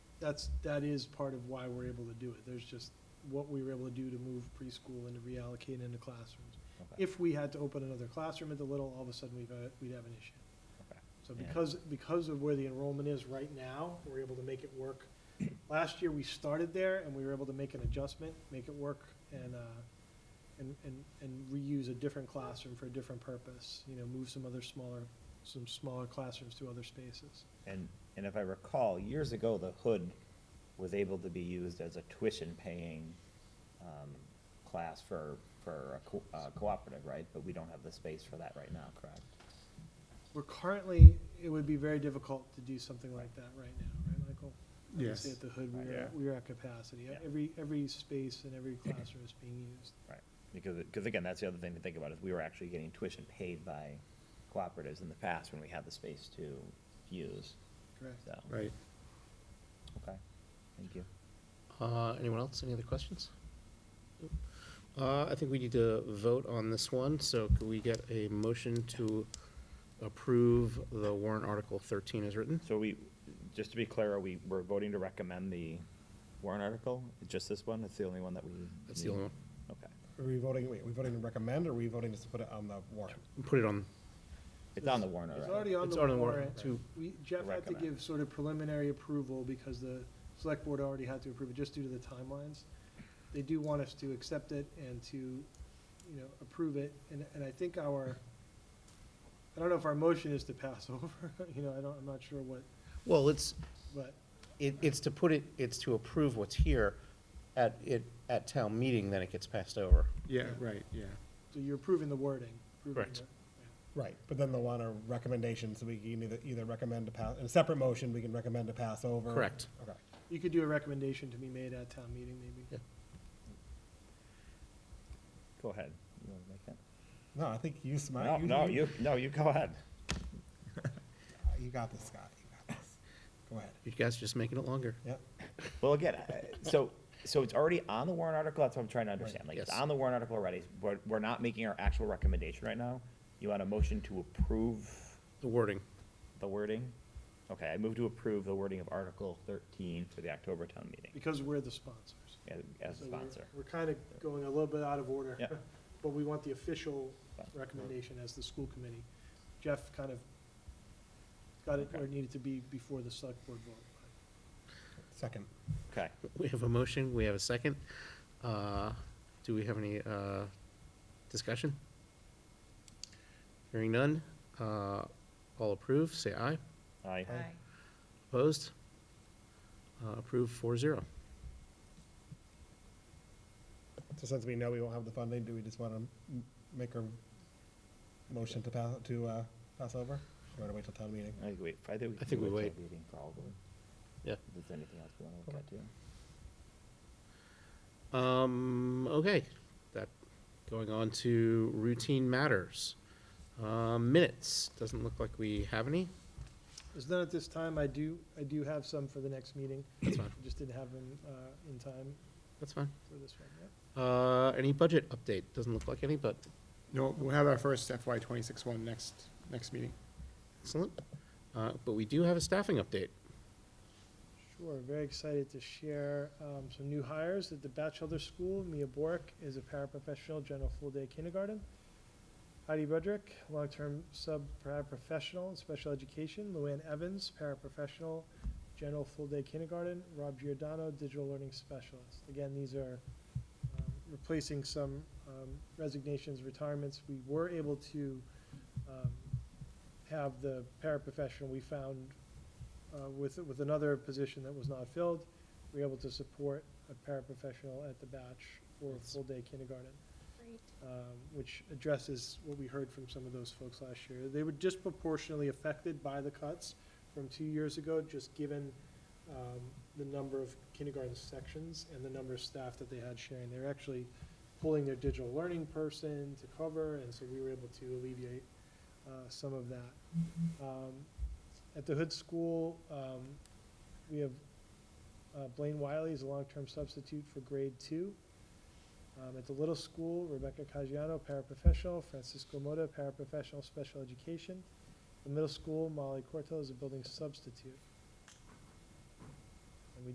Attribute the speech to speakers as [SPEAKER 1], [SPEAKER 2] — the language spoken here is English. [SPEAKER 1] that's, that is part of why we're able to do it. There's just what we were able to do to move preschool and to reallocate into classrooms.
[SPEAKER 2] Okay.
[SPEAKER 1] If we had to open another classroom at the Little, all of a sudden we've, uh, we'd have an issue.
[SPEAKER 2] Okay.
[SPEAKER 1] So
[SPEAKER 2] Yeah.
[SPEAKER 1] because, because of where the enrollment is right now, we're able to make it work. Last year, we started there and we were able to make an adjustment, make it work and, uh, and, and, and reuse a different classroom for a different purpose. You know, move some other smaller, some smaller classrooms to other spaces.
[SPEAKER 2] And, and if I recall, years ago, the hood was able to be used as a tuition-paying um, class for, for a co- uh, cooperative, right? But we don't have the space for that right now, correct?
[SPEAKER 1] We're currently, it would be very difficult to do something like that right now, right, Michael? Obviously,
[SPEAKER 3] Yes.
[SPEAKER 1] At the hood, we are,
[SPEAKER 3] Yeah.
[SPEAKER 1] we are at capacity.
[SPEAKER 2] Yeah.
[SPEAKER 1] Every, every space and every classroom is being used.
[SPEAKER 2] Because, because again, that's the other thing to think about, is we were actually getting tuition paid by cooperatives in the past when we had the space to use,
[SPEAKER 1] Correct.
[SPEAKER 2] so,
[SPEAKER 3] Right.
[SPEAKER 2] okay, thank you.
[SPEAKER 3] Uh, anyone else? Any other questions? Nope. Uh, I think we need to vote on this one, so could we get a motion to approve the warrant article thirteen as written?
[SPEAKER 2] So we, just to be clear, are we, we're voting to recommend the warrant article? Just this one? It's the only one that we?
[SPEAKER 3] That's the only one.
[SPEAKER 2] Okay.
[SPEAKER 4] Are we voting, wait, are we voting to recommend, or are we voting just to put it on the warrant?
[SPEAKER 3] Put it on,
[SPEAKER 2] It's on the warrant
[SPEAKER 1] It's already
[SPEAKER 2] already.
[SPEAKER 1] on
[SPEAKER 3] it's
[SPEAKER 1] the
[SPEAKER 3] on the
[SPEAKER 1] warrant.
[SPEAKER 3] warrant to,
[SPEAKER 1] We, Jeff had to
[SPEAKER 2] Recommend.
[SPEAKER 1] give sort of preliminary approval because the select board already had to approve it just due to the timelines. They do want us to accept it and to, you know, approve it, and, and I think our, I don't know if our motion is to pass over, you know, I don't, I'm not sure what,
[SPEAKER 3] well, it's,
[SPEAKER 1] but,
[SPEAKER 3] it, it's to put it, it's to approve what's here at, it, at town meeting, then it gets passed over.
[SPEAKER 5] Yeah,
[SPEAKER 1] Yeah.
[SPEAKER 5] right, yeah.
[SPEAKER 1] so you're approving the wording. approving
[SPEAKER 3] Correct.
[SPEAKER 1] the-
[SPEAKER 4] Right, but then they'll want a recommendation, so we can either, either recommend to pass, in a separate motion, we can recommend to pass over.
[SPEAKER 3] Correct.
[SPEAKER 4] Okay.
[SPEAKER 1] You could do a recommendation to be made at town meeting, maybe.
[SPEAKER 3] Yeah.
[SPEAKER 2] Go ahead. You wanna make that?
[SPEAKER 4] No, I think you
[SPEAKER 2] No,
[SPEAKER 4] smart.
[SPEAKER 2] no, you, no, you go ahead.
[SPEAKER 4] You got this, Scott, you got this. Go ahead.
[SPEAKER 3] You guys just making it longer.
[SPEAKER 4] Yep,
[SPEAKER 2] Well, again, I- so, so it's already on the warrant article, that's what I'm trying to understand. Like, it's
[SPEAKER 3] Yes.
[SPEAKER 2] on the warrant article already, but we're not making our actual recommendation right now. You want a motion to approve
[SPEAKER 3] The wording.
[SPEAKER 2] the wording? Okay, I move to approve the wording of Article thirteen for the October town meeting
[SPEAKER 1] Because we're the sponsors.
[SPEAKER 2] as- as
[SPEAKER 1] So
[SPEAKER 2] a
[SPEAKER 1] we're-
[SPEAKER 2] sponsor.
[SPEAKER 1] We're kind of going a little bit out of order.
[SPEAKER 2] Yeah.
[SPEAKER 1] But we want the official
[SPEAKER 2] Fine.
[SPEAKER 1] recommendation as the school committee. Jeff kind of got it where it needed to be before the select board vote.
[SPEAKER 4] second.
[SPEAKER 2] Okay,
[SPEAKER 3] We have a motion, we have a second. Uh, Do we have any uh, discussion? Hearing none, uh, all approve, say aye.
[SPEAKER 2] aye.
[SPEAKER 4] Aye.
[SPEAKER 3] Opposed? Uh, Approved four zero.
[SPEAKER 4] So since we know we won't have the funding, do we just want to make a motion to pass, to, uh, pass over? Or to wait till town meeting?
[SPEAKER 2] I think we, I think we.
[SPEAKER 3] I think we
[SPEAKER 2] can
[SPEAKER 3] wait.
[SPEAKER 2] till meeting Probably.
[SPEAKER 3] Yeah.
[SPEAKER 2] If there's anything else we want to look at, too.
[SPEAKER 3] Um, okay, that, going on to routine matters. Uh, Minutes, doesn't look like we have any.
[SPEAKER 1] Is none at this time, I do, I do have some for the next meeting.
[SPEAKER 3] That's fine,
[SPEAKER 1] Just didn't have them uh, in time
[SPEAKER 3] that's fine.
[SPEAKER 1] for this one, yeah.
[SPEAKER 3] Uh, Any budget update? Doesn't look like any, but
[SPEAKER 5] No, we'll have our first FY twenty-six one next, next meeting.
[SPEAKER 3] excellent. Uh, But we do have a staffing update.
[SPEAKER 1] Sure, very excited to share um, some new hires at the Batchelder School. Mia Borick is a paraprofessional, general full-day kindergarten. Heidi Budrick, long-term sub-paraprofessional in special education. Luann Evans, paraprofessional, general full-day kindergarten. Rob Giordano, digital learning specialist. Again, these are um, replacing some um, resignations, retirements. We were able to um, have the paraprofessional we found uh, with, with another position that was not filled. We were able to support a paraprofessional at the batch or
[SPEAKER 3] Nice.
[SPEAKER 1] full-day kindergarten um, which addresses what we heard from some of those folks last year. They were disproportionately affected by the cuts from two years ago, just given um, the number of kindergarten sections and the number of staff that they had sharing. They were actually pulling their digital learning person to cover, and so we were able to alleviate uh, some of that. Um, At the Hood School, um, we have uh, Blaine Wiley is a long-term substitute for grade two. Um, at the Little School, Rebecca Caggiano, paraprofessional, Francisco Moda, paraprofessional, special education. The Middle School, Molly Corto is a building substitute.